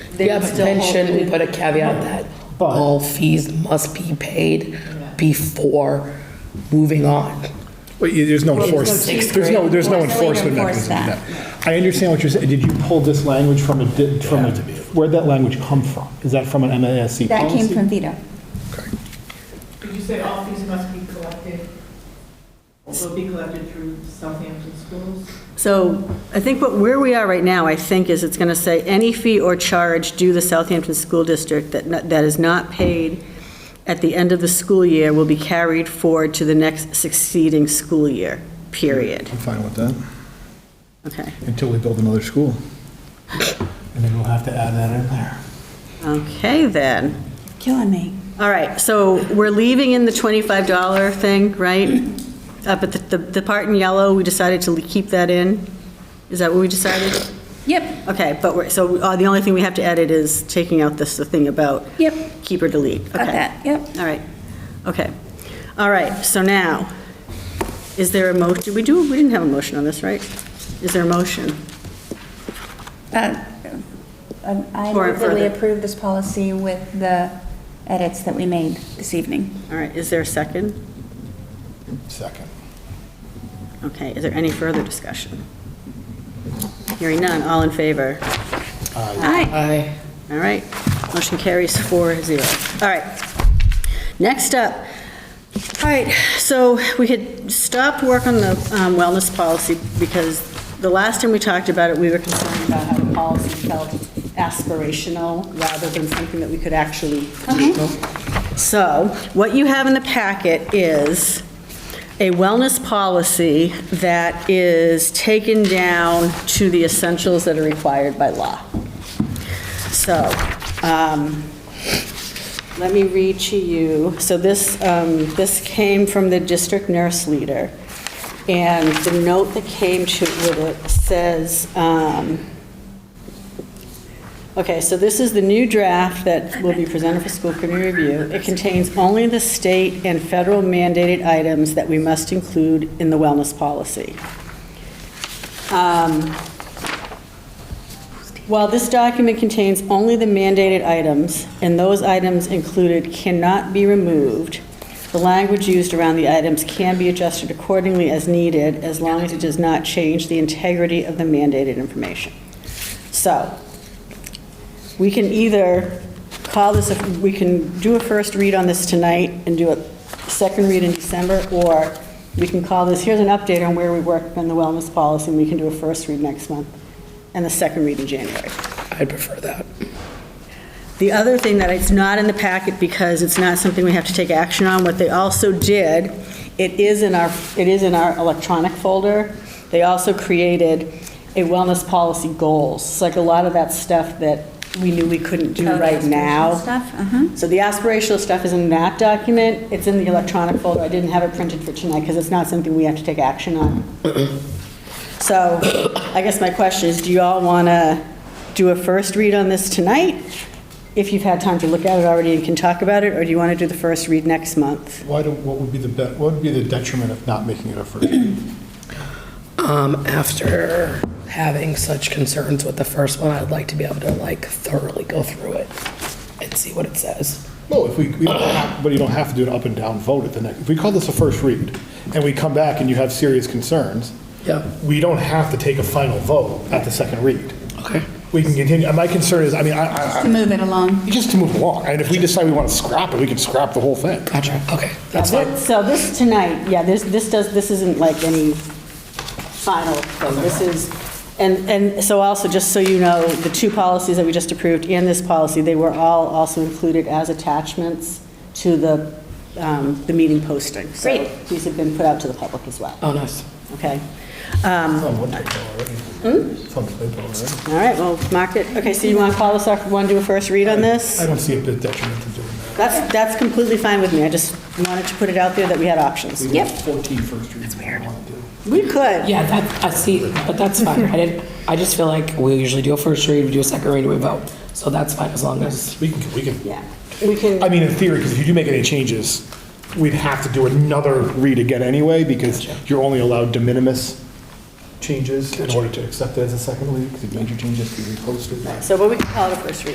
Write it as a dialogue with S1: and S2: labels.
S1: they
S2: Yeah,
S1: would
S2: but
S1: still
S2: then
S1: hold.
S2: shouldn't we put a caveat that
S3: But-
S2: all fees must be paid before moving on?
S3: Wait, there's no
S2: there's no
S3: enforcement,
S2: sixth
S3: there's no,
S2: grade.
S3: there's no
S1: Forcibly
S3: enforcement
S1: enforce
S3: mechanism in that. I understand what you're saying, did you pull this language from a, di- from a, where'd that language come from? Is that from an MASC policy?
S4: Oh,
S5: That came from Vito.
S6: Did you say all fees must be collected, will be collected through Southampton schools?
S4: So I think what, where we are right now, I think, is it's going to say, any fee or charge due the Southampton School District that, not- that is not paid at the end of the school year will be carried forward to the next succeeding school year, period.
S7: I'm fine with that,
S4: Okay,
S7: until we build another school.
S3: And then we'll have to add that in there.
S4: okay then.
S5: Killing me.
S4: All right, so we're leaving in the $25 thing, right? Up at the, the part in yellow, we decided to keep that in? Is that what we decided?
S5: Yep,
S4: Okay, but we're, so uh, the only thing we have to edit is taking out this, the thing about.
S5: Yep.
S4: Keep or delete.
S5: got
S4: Okay.
S5: that, yep.
S4: All right, okay. All right, so now, is there a mo, did we do, we didn't have a motion on this, right? Is there a motion?
S5: Uh, um, I
S4: For-
S5: move that we
S4: further.
S5: approve this policy with the edits that we made this evening.
S4: All right, is there a second?
S7: Second.
S4: Okay, is there any further discussion? Hearing none, all in favor?
S5: Aye.
S2: I,
S4: All right, motion carries four zero. All right. Next up, all right, so we had stopped work on the um, wellness policy because the last time we talked about it, we were concerned about how the policy felt aspirational rather than something that we could actually. So what you have in the packet is a wellness policy that is taken down to the essentials that are required by law. So, um, let me read to you, so this, um, this came from the district nurse leader, and the note that came to with it says, um, okay, so this is the new draft that will be presented for school committee review. It contains only the state and federal mandated items that we must include in the wellness policy. Um, While this document contains only the mandated items, and those items included cannot be removed, the language used around the items can be adjusted accordingly as needed, as long as it does not change the integrity of the mandated information. So, we can either call this, a- we can do a first read on this tonight and do a second read in December, or we can call this, here's an update on where we worked on the wellness policy, and we can do a first read next month and the second read in January.
S2: I prefer that.
S4: The other thing that it's not in the packet because it's not something we have to take action on, what they also did, it is in our, it is in our electronic folder. They also created a wellness policy goals. It's like a lot of that stuff that we knew we couldn't do
S5: Oh, the
S4: right now.
S5: aspirational stuff, uh-huh.
S4: So the aspirational stuff is in that document. It's in the electronic folder. I didn't have it printed for tonight because it's not something we have to take action on. So I guess my question is, do you all want to do a first read on this tonight? If you've had time to look at it already and can talk about it, or do you want to do the first read next month?
S7: Why do, what would be the, be- what would be the detriment of not making it a first?
S2: Um, after having such concerns with the first one, I'd like to be able to like thoroughly go through it and see what it says.
S7: Well, if we, we don't have, but you don't have to do an up and down vote at the next, if we call this a first read, and we come back and you have serious concerns,
S2: Yeah.
S7: we don't have to take a final vote at the second read.
S2: Okay.
S7: We can continue, and my concern is, I mean, I, I,
S5: To move it along.
S7: I- just to move along, and if we decide we want to scrap it, we can scrap the whole thing.
S2: Gotcha, okay, that's fine.
S4: So this tonight, yeah, this, this does, this isn't like any final thing. This is, and, and so also, just so you know, the two policies that we just approved and this policy, they were all also included as attachments to the, um, the meeting posting. So
S5: Great.
S4: These have been put out to the public as well,
S2: Oh, nice.
S4: okay?
S7: I
S5: Hmm?
S4: All right, well, mark it, okay, so you want to call us off, want to do a first read on this?
S7: don't see a bit detriment to doing that.
S4: That's, that's completely fine with me, I just wanted to put it out there that we had options.
S7: We
S5: Yep.
S7: have 14 first reads. That's weird.
S4: We could,
S2: Yeah, that, I see, but that's fine. I didn't, I just feel like we usually do a first read, we do a second read, we vote. So that's fine as long as,
S7: We can, we can,
S4: yeah, we can.
S7: I mean, in theory, because if you do make any changes, we'd have to do another read again anyway, because you're only allowed de minimis changes in order to accept it as a second read, because if major changes, you repost it.
S4: So, but we can call it a first read.